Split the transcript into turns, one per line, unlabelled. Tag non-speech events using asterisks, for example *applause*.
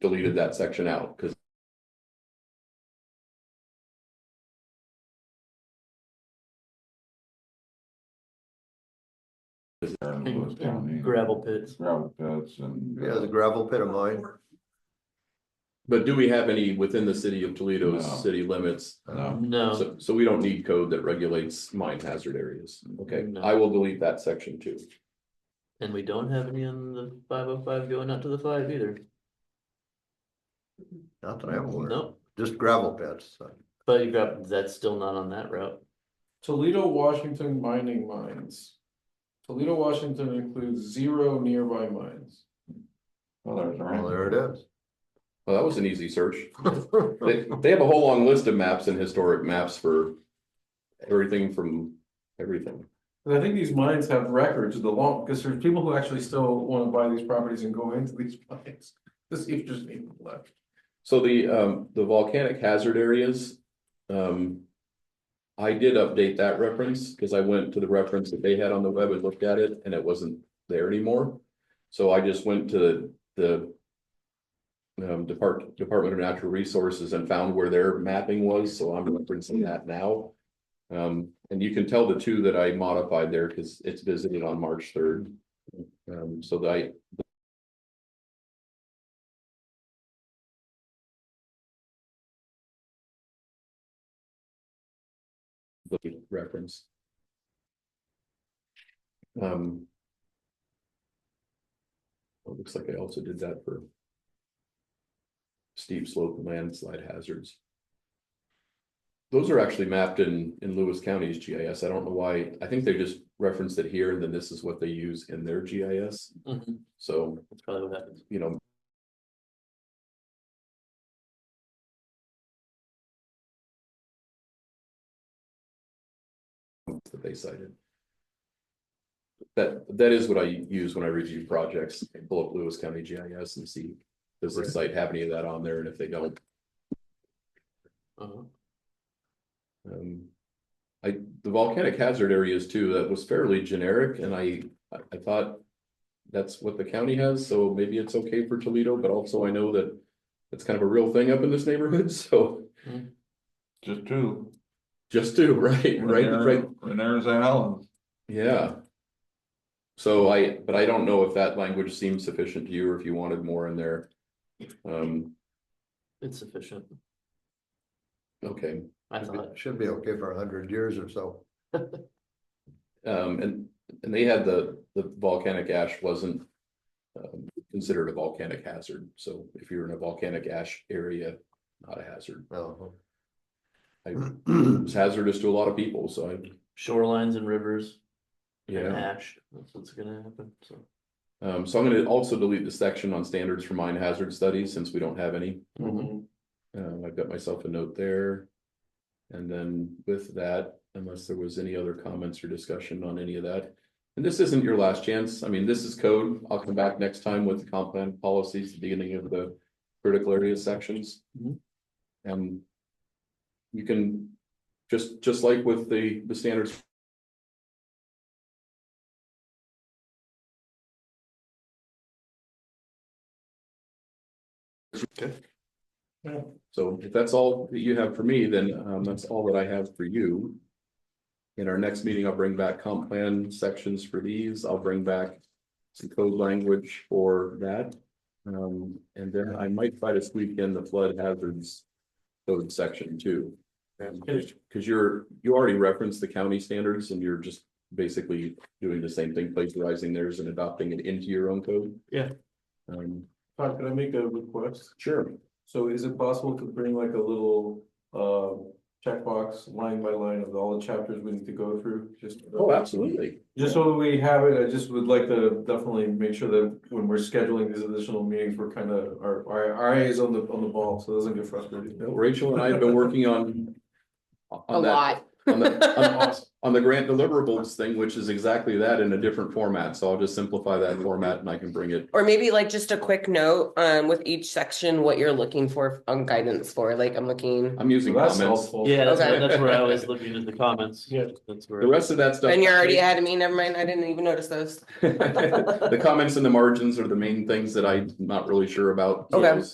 deleted that section out, because
And
Lewis County,
and gravel pits.
gravel pits and.
Yeah, the gravel pit of mine,
But do we have any within the city of Toledo's
No.
city limits?
uh, No,
No,
Oh, So, so we don't need code that regulates mine hazard areas. Okay,
No.
I will delete that section too.
and we don't have any on the five oh five going out to the five either.
not that I'm aware of,
Nope,
just gravel pits. so.
but you grab, that's still not on that route.
Toledo, Washington mining mines. Toledo, Washington includes zero nearby mines.
well, there's. a
Well,
ramp.
there it is.
Well, that was an easy
*laughs*
search. They, they have a whole long list of maps and historic maps for everything from everything.
And I think these mines have records of the long, because there's people who actually still wanna buy these properties and go into these *laughs* mines. This is just even left.
So the, um, the volcanic hazard areas, um. I did update that reference, because I went to the reference that they had on the web and looked at it, and it wasn't there anymore. So I just went to the. Um, Depart- Department of Natural Resources and found where their mapping was, so I'm referencing that now. Um, and you can tell the two that I modified there, because it's visited on March third. Um, so that I, the reference. Um. It looks like I also did that for. Steep slope and landslide hazards. Those are actually mapped in, in Lewis County's GIS. I don't know why. I think they just referenced it here and then this is what they use in their GIS.
Mhm,
So,
That's probably what happens.
you know. That they cited. That, that is what I use when I review projects, pull up Lewis County GIS and see, does the site have any of that on there, and if they don't,
Uh-huh.
um. I, the volcanic hazard areas too, that was fairly generic, and I, I- I thought. That's what the county has, so maybe it's okay for Toledo, but also I know that. It's kind of a real thing up in this neighborhood, *laughs* so
Just two.
just do, right, right, right,
And there's Allen.
yeah. So I, but I don't know if that language seems sufficient to you or if you wanted more in there. Um,
It's sufficient,
okay,
I thought.
Should be okay for a hundred years or so.
um, and, and they had the, the volcanic ash wasn't. Um, considered a volcanic hazard, so if you're in a volcanic ash area, not a hazard,
No.
I-
*clears throat*
it's hazardous to a lot of people, so I,
Shorelines and rivers and
yeah.
ash, that's what's gonna happen, so.
Um, so I'm gonna also delete the section on standards for mine hazard studies, since we don't have any. Um, I've got myself a note there. And then with that, unless there was any other comments or discussion on any of that. And this isn't your last chance. I mean, this is code. I'll come back next time with the comp plan policies, the beginning of the critical area sections.
Mhm.
And you can, just, just like with the, the standards. So if that's all that you have for me, then um that's all that I have for you. In our next meeting, I'll bring back comp plan sections for these. I'll bring back some code language for that. Um, and then I might try to squeak in the flood hazards code section too. Um, Cause you're, you already referenced the county standards and you're just basically doing the same thing, plagiarizing theirs and adopting it into your own code.
Yeah.
Um,
Todd, can I make a request?
sure.
So is it possible to bring like a little, uh, checkbox line by line of all the chapters we need to go through? Just
Oh, absolutely.
Just so that we have it, I just would like to definitely make sure that when we're scheduling these additional meetings, we're kind of, our, our, our eye is on the, on the ball, so it doesn't get frustrated.
No, Rachel and I have been working on.
A
on that-
lot.
On
*laughs*
the, on- on the grant deliverables thing, which is exactly that in a different format, so I'll just simplify that format and I can bring it.
Or maybe like just a quick note, um, with each section, what you're looking for on guidance for, like I'm looking.
I'm using
That's
comments.
helpful.
Yeah, that's,
Okay.
that's where I was
*laughs*
looking at the comments.
Yeah.
That's
The
where,
rest of that stuff.
And you're
*laughs*
already *laughs* ahead of me, never mind, I didn't even notice those.
The comments and the margins are the main things that I'm not really sure about.
Okay.